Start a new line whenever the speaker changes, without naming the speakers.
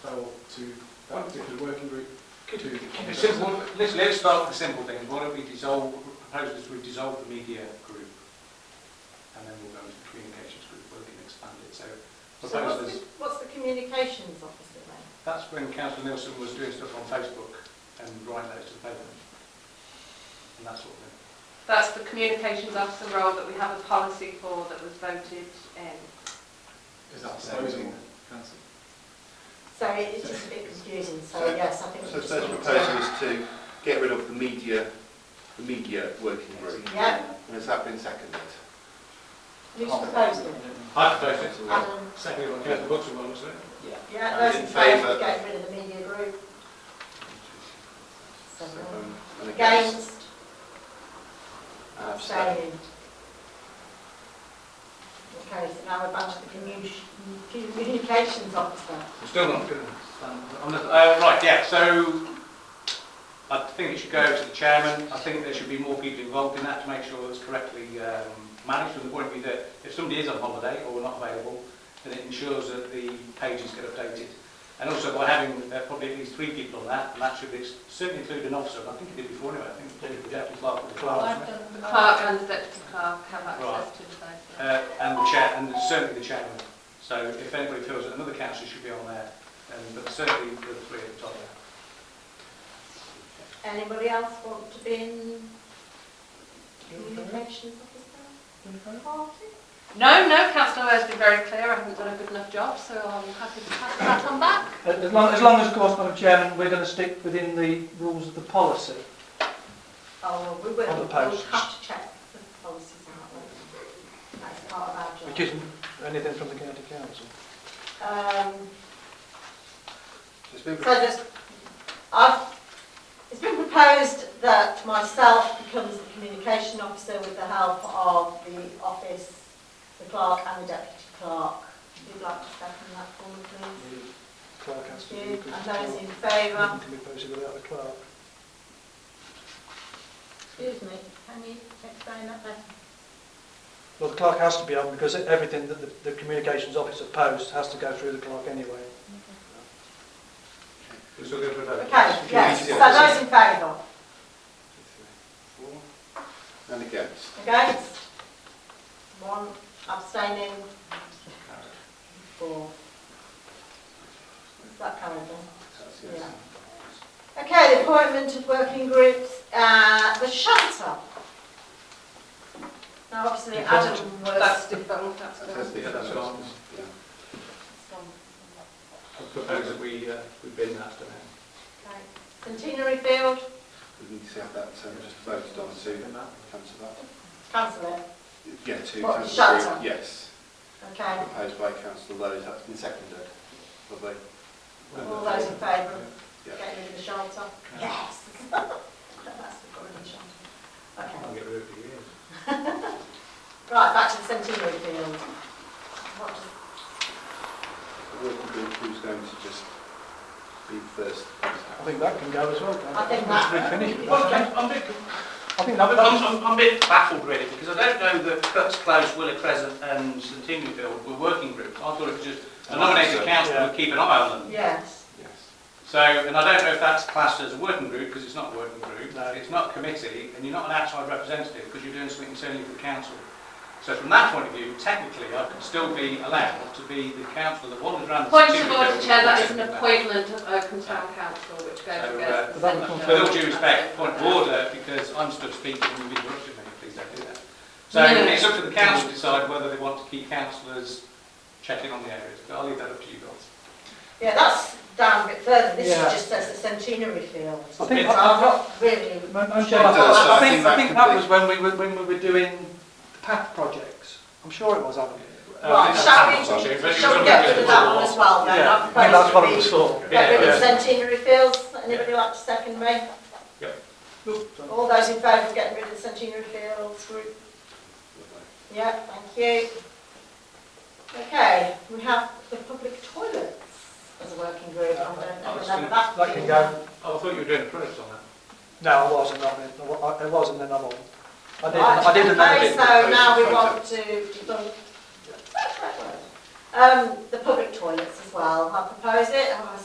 fell to that particular working group to the
The simple, let's, let's start with the simple things. Why don't we dissolve, propose is we dissolve the media group and then we'll go into the communications group where we can expand it. So
So
propose
what's
is,
the, what's the communications officer then?
that's when Councillor Nielsen was doing stuff on Facebook and writing letters to the paper and that sort of thing.
That's the communications officer role that we have a policy for that was voted in.
Is that proposal?
So it- it's just a bit confusing, so yes, I think.
So
we
Steph's
just-
proposal is to get rid of the media, the media working group.
Yeah,
And has that been seconded?
who's proposed it?
I propose it.
Adam,
Secondly, on Councillor Buxton, well, wasn't it?
yeah,
And
those
in
in favour
favour?
of getting rid of the media group?
So, um, and against?
Against,
And abstained.
abstaining. Okay, so now we're back to the commu- communications officer.
I'm still not going to stand. on the- Uh, right, yeah, so I think it should go to the chairman. I think there should be more people involved in that to make sure it's correctly um, managed from the point of view that if somebody is on holiday or not available, then it ensures that the pages get updated. And also by having uh, probably at least three people on that, and that should ex- certainly include an officer. and I think he did before anyway. I think he did the deputy clerk or the clerk. wasn't it?
The
Uh,
clerk and the deputy clerk have
Right.
access to the data.
Uh, and the chair, and certainly the chairman. So if anybody feels that another councillor should be on there, and, but certainly the three at the top there.
Anybody else want to be in communications officer? Party?
No, no, councillor Lowe's been very clear, I haven't done a good enough job, so I'm happy to pass that on back.
As long, as long as, of course, Madam Chairman, we're going to stick within the rules of the policy.
Oh, well, we will,
On the
we'll
posts.
have to check the policies out, won't we? That's part of our job.
Which isn't anything from the county council.
Um,
So it's been
so just, I've, it's been proposed that myself becomes the communication officer with the help of the office, the clerk and the deputy clerk. Would you like to second that for me, please?
Clerk has to
Thank
be.
you. And those in favour?
Can be posted without the clerk.
Excuse me, can you explain that better?
Well, the clerk has to be on because everything that the, the communications officer posts has to go through the clerk anyway.
We're still going to vote.
Okay, yes, so
Community
those in favour?
And against?
Against? One abstaining? Four. Is that carried then?
That's yes.
Okay, the appointment of working groups, uh, the shelter. Now, obviously, Adam was.
That's defunct, that's
That has
gone.
been
Yeah, that's
seconded.
gone.
Yeah.
I propose that we, uh, we bin that uh, to them.
Okay. Centenary Field,
We need to have that um, just voted on soon. Cancel that.
councillor,
Yeah, two
What,
councillor
shut
group.
up?
Yes.
okay,
Proposed by councillor Lowe. That's been seconded. Lovely.
all those in favour of
Yeah.
getting rid of the shelter? Yes. That's the problem with the shelter. Okay.
I'll get rid of you, yes.
Right, back to the centenary field. What does-
Working group, who's going to just be first?
I think that can go as well. can't it?
I think that-
We've finished with
Well,
that.
I'm, I'm, a bit,
I think
I'm,
that,
I'm,
that's,
I'm- I'm a bit baffled really because I don't know that Cuts Close, Willow Crescent and Centenary Field were working groups. I thought it was just a nominated council would keep an eye on them.
Yes,
Yes.
So, and I don't know if that's classed as a working group because it's not a working group.
No.
It's not a committee and you're not an outside representative because you're doing something internally for the council. So from that point of view, technically I could still be allowed to be the councillor that wanders around the
Point of
Centenary
order,
Field
Chair, that is
and
an
talks about-
appointment of Oakham Town Council, which
So,
goes
uh,
against the
That
centre.
was
With all due respect, point of order, because I'm stood speaking and you've interrupted me, please don't do that. So
No.
it's up to the council to decide whether they want to keep councillors checking on the areas, but I'll leave that up to you guys.
yeah, that's down a bit further, this
Yeah.
is just says the centenary field.
I think,
So
I-
I'm
I've got,
not really,
Madam Chairman, I thought-
So I
I think,
think
I think
that
that
could
was when we were, when we were doing the path projects. I'm sure it was, Adam.
Uh,
Right, shall we- shall we get rid of that one as well then?
Yeah,
I
I think that's what it
propose
was
that
for.
we get rid of
Yeah.
centenary fields, anybody like to second me? All those in favour of getting rid of the centenary fields group?
Lovely.
Yeah, thank you. Okay, we have the public toilets as a working group, I don't know whether that.
That can go.
Oh, I thought you were doing a protest on that.
No, I wasn't. I mean, I wa- I- I wasn't, then I'm on. I did,
Right,
I did amend
Okay,
it.
so now we want to debunk, um, the public toilets as well. I propose it, have a